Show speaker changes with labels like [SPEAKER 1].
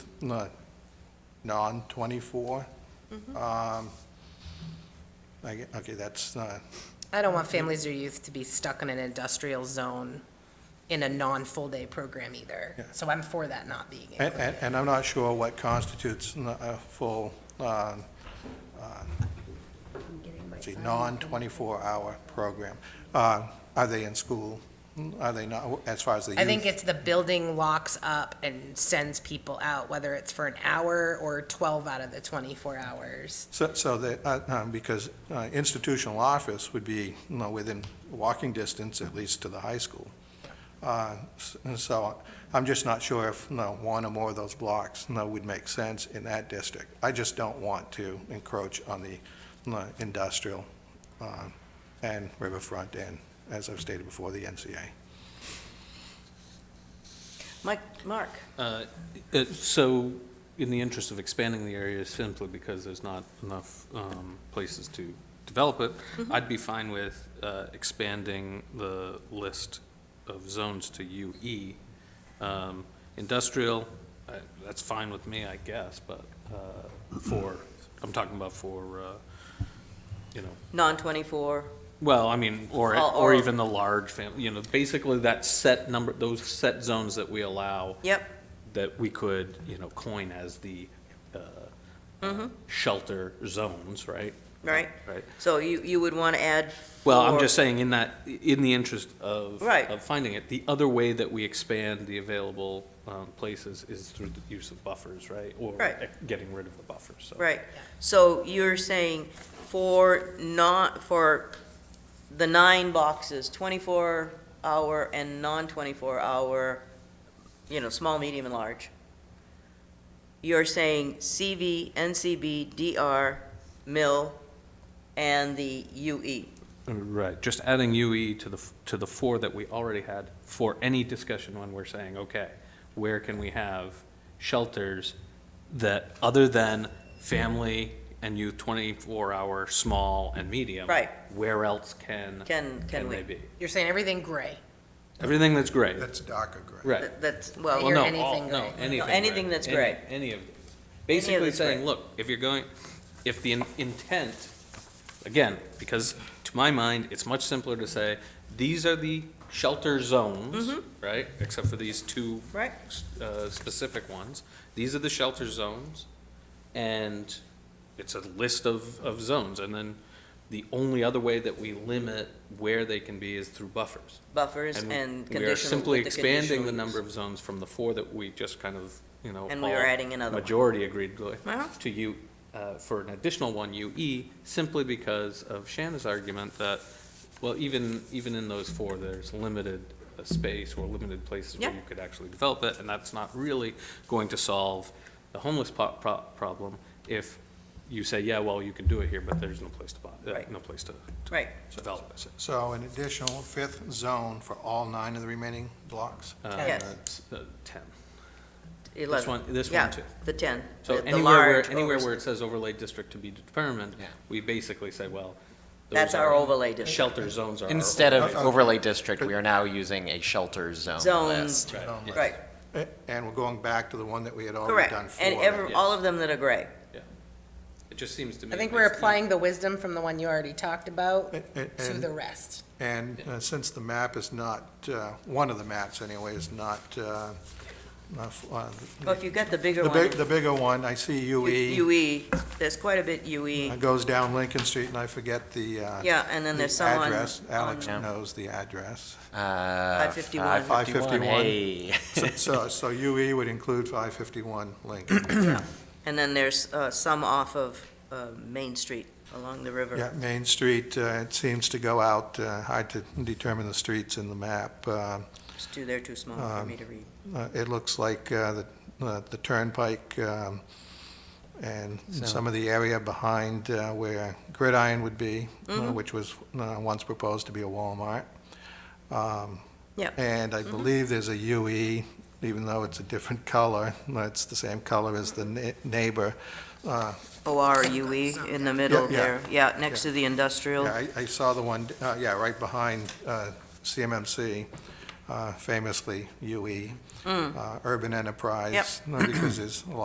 [SPEAKER 1] no, non-24.
[SPEAKER 2] Mm-hmm.
[SPEAKER 1] Um, Okay, that's, uh,
[SPEAKER 2] I don't want families or youth to be stuck in an industrial zone in a non-full-day program either.
[SPEAKER 1] Yeah.
[SPEAKER 2] So I'm for that not being
[SPEAKER 1] and,
[SPEAKER 2] included.
[SPEAKER 1] and- and I'm not sure what constitutes n- a full, uh, uh, let's see, non-24 hour program. Uh, Are they in school? Are they not, as far as the youth?
[SPEAKER 2] I think it's the building locks up and sends people out, whether it's for an hour or 12 out of the 24 hours.
[SPEAKER 1] So, so that, uh, um, because uh, institutional office would be, you know, within walking distance, at least to the high school. Uh, s- and so I'm just not sure if, you know, one or more of those blocks, you know, would make sense in that district. I just don't want to encroach on the, you know, industrial, uh, and riverfront and, as I've stated before, the NCA.
[SPEAKER 3] Mike, Mark,
[SPEAKER 4] Uh, uh, So, in the interest of expanding the area simply because there's not enough um, places to develop it, I'd be fine with uh, expanding the list of zones to UE. Um, Industrial, uh, that's fine with me, I guess, but uh, for, I'm talking about for, uh, you know,
[SPEAKER 3] non-24,
[SPEAKER 4] well, I mean, or,
[SPEAKER 3] Or-
[SPEAKER 4] or
[SPEAKER 3] or-
[SPEAKER 4] even the large family, you know, basically that set number, those set zones that we allow
[SPEAKER 3] yep,
[SPEAKER 4] that we could, you know, coin as the uh,
[SPEAKER 3] Mm-hmm.
[SPEAKER 4] shelter zones, right?
[SPEAKER 3] right?
[SPEAKER 4] Right.
[SPEAKER 3] So you, you would want to add
[SPEAKER 4] Well, I'm
[SPEAKER 3] four-
[SPEAKER 4] just saying in that, in the interest of.
[SPEAKER 3] Right.
[SPEAKER 4] Of finding it. The other way that we expand the available um, places is through the use of buffers, right? Or
[SPEAKER 3] Right.
[SPEAKER 4] getting rid of the buffers, so.
[SPEAKER 3] Right, so you're saying for not, for the nine boxes, 24-hour and non-24-hour, you know, small, medium, and large, you're saying CV, NCB, DR, mill, and the E. UE.
[SPEAKER 4] Right, just adding UE to the, f- to the four that we already had for any discussion when we're saying, okay, where can we have shelters that, other than family and youth twenty-four hour, small and medium?
[SPEAKER 3] Right.
[SPEAKER 4] Where else can,
[SPEAKER 3] Can, can
[SPEAKER 4] can
[SPEAKER 3] we?
[SPEAKER 4] they be?
[SPEAKER 2] You're saying everything gray.
[SPEAKER 4] Everything that's gray,
[SPEAKER 1] That's DACA grant.
[SPEAKER 4] right.
[SPEAKER 3] That- That's,
[SPEAKER 2] Well,
[SPEAKER 3] well,
[SPEAKER 4] Well, no,
[SPEAKER 2] anything
[SPEAKER 4] all, no,
[SPEAKER 2] gray.
[SPEAKER 4] anything.
[SPEAKER 3] anything
[SPEAKER 4] gray.
[SPEAKER 3] that's
[SPEAKER 4] Any-
[SPEAKER 3] gray.
[SPEAKER 4] Any of these. Basically
[SPEAKER 3] that's gray.
[SPEAKER 4] saying, look, if you're going, if the in- intent, again, because to my mind, it's much simpler to say, these are the shelter zones, right? Except for these two
[SPEAKER 3] right?
[SPEAKER 4] s- uh, specific ones. These are the shelter zones, and it's a list of, of zones. And then the only other way that we limit where they can be is through buffers.
[SPEAKER 3] Buffers
[SPEAKER 4] And
[SPEAKER 3] and
[SPEAKER 4] We are
[SPEAKER 3] conditional,
[SPEAKER 4] simply
[SPEAKER 3] with the
[SPEAKER 4] expanding the
[SPEAKER 3] conditional
[SPEAKER 4] number
[SPEAKER 3] use.
[SPEAKER 4] of zones from the four that we just kind of, you know.
[SPEAKER 3] And we
[SPEAKER 4] all
[SPEAKER 3] are adding another one.
[SPEAKER 4] Majority agreed to,
[SPEAKER 3] Uh-huh.
[SPEAKER 4] to you, uh, for an additional one UE, simply because of Shanna's argument that, well, even, even in those four, there's limited uh, space or limited places where
[SPEAKER 3] Yeah.
[SPEAKER 4] you could actually develop it, and that's not really going to solve the homeless po- pro- problem if you say, yeah, well, you can do it here, but there's no place to buy, uh,
[SPEAKER 3] Right.
[SPEAKER 4] no place to to
[SPEAKER 3] Right,
[SPEAKER 4] develop it.
[SPEAKER 1] So an additional fifth zone for all nine of the remaining blocks?
[SPEAKER 4] Uh,
[SPEAKER 3] Yes.
[SPEAKER 4] s- uh, Ten.
[SPEAKER 3] 11.
[SPEAKER 4] one- this one
[SPEAKER 3] Yeah,
[SPEAKER 4] too.
[SPEAKER 3] The 10.
[SPEAKER 4] So
[SPEAKER 3] the- the
[SPEAKER 4] anywhere where,
[SPEAKER 3] large
[SPEAKER 4] anywhere
[SPEAKER 3] overs-
[SPEAKER 4] where it says overlay district to be determined, we basically say, well. those
[SPEAKER 3] That's our
[SPEAKER 4] are-
[SPEAKER 3] overlay district.
[SPEAKER 4] Shelter zones are. our
[SPEAKER 5] Instead of
[SPEAKER 1] Uh, uh,
[SPEAKER 5] overlay district, we are now using a shelter zone
[SPEAKER 3] Zones.
[SPEAKER 5] list.
[SPEAKER 4] Right.
[SPEAKER 1] Zone list.
[SPEAKER 3] Right,
[SPEAKER 1] A- And we're going back to the one that we had already
[SPEAKER 3] correct.
[SPEAKER 1] done four.
[SPEAKER 3] And every, all of them that are gray.
[SPEAKER 4] It just seems to me.
[SPEAKER 2] I think
[SPEAKER 4] it
[SPEAKER 2] we're
[SPEAKER 4] makes-
[SPEAKER 2] applying the wisdom from the one you already talked about
[SPEAKER 1] And- and-
[SPEAKER 2] to the rest.
[SPEAKER 1] And uh, since the map is not, uh, one of the maps anyway, is not, uh, not f- uh,
[SPEAKER 3] Well, if you got the bigger
[SPEAKER 1] the
[SPEAKER 3] one,
[SPEAKER 1] big, E. the bigger one, I see UE,
[SPEAKER 3] UE, there's quite a bit UE.
[SPEAKER 1] It goes down Lincoln Street, and I forget the. uh,
[SPEAKER 3] E. Yeah, and then
[SPEAKER 1] the
[SPEAKER 3] there's some on,
[SPEAKER 1] Address, Alex
[SPEAKER 3] on-
[SPEAKER 5] Yeah.
[SPEAKER 1] knows the address.
[SPEAKER 5] Uh,
[SPEAKER 3] 551.
[SPEAKER 5] 551,
[SPEAKER 1] 551.
[SPEAKER 5] hey.
[SPEAKER 1] So- So, so UE would include 551 Lincoln.
[SPEAKER 3] and then there's uh, some off of uh, Main Street along the river.
[SPEAKER 1] Yeah, Main Street, uh, it seems to go out, uh, hard to determine the streets in the map. uh,
[SPEAKER 3] It's too, they're too small for
[SPEAKER 1] Um,
[SPEAKER 3] me to read.
[SPEAKER 1] Uh, It looks like uh, the uh, the turnpike um, and some of the area behind uh, where Gridiron would be, uh, which was uh, once proposed to be a Walmart. Um,
[SPEAKER 3] Yeah.
[SPEAKER 1] And I believe there's a UE, even though it's a different color, it's the same color as the ne- neighbor. Uh,
[SPEAKER 3] OR UE E in the middle
[SPEAKER 1] Yeah, yeah.
[SPEAKER 3] there, yeah, next to the industrial.
[SPEAKER 1] yeah, I I saw the one, uh, yeah, right behind uh, CMMC, E, uh, famously UE, uh, Urban Enterprise. Because there's a lot